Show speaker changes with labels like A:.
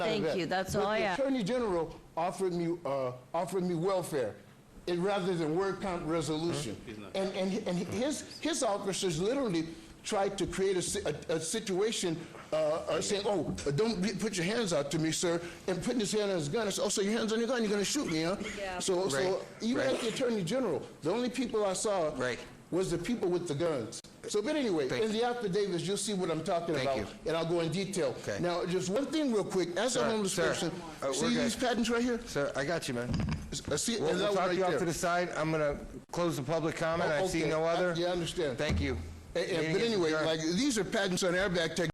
A: Thank
B: that.
A: you. That's
B: But
A: all I
B: the
A: ask.
B: Attorney General offered me, uh, offered me welfare, it, rather than word count resolution. And, and, and his, his officers literally tried to create a, si- a, a situation, uh, uh, saying, oh, uh, don't be- put your hands out to me, sir, and putting his hand on his gun, and say, oh, so your hand's on your gun, you're gonna shoot me, huh?
A: Yeah.
B: So,
C: Right,
B: so, even
C: right.
B: at the Attorney General, the only people I saw
C: Right.
B: was the people with the guns. So, but anyway,
C: Thank
B: in the affidavits, you'll see what I'm talking
C: Thank
B: about,
C: you.
B: and I'll go in detail.
C: Okay.
B: Now, just one thing real quick, as a
C: Sir,
B: homeless
C: sir.
B: person,
C: Uh, we're
B: see
C: good.
B: these patents right here?
C: Sir, I got you, man.
B: S- uh, See,
C: We'll
B: and that
C: we'll
B: one
C: talk
B: right
C: you off
B: there.
C: to the side. I'm going to close the public comment.
B: Oh,
C: I see
B: okay.
C: no
B: I-
C: other.
B: Yeah, I understand.
C: Thank you.
B: And- and-
C: Meeting
B: But
C: is
B: anyway,
C: adjourned.
B: like, these are patents on airbag technology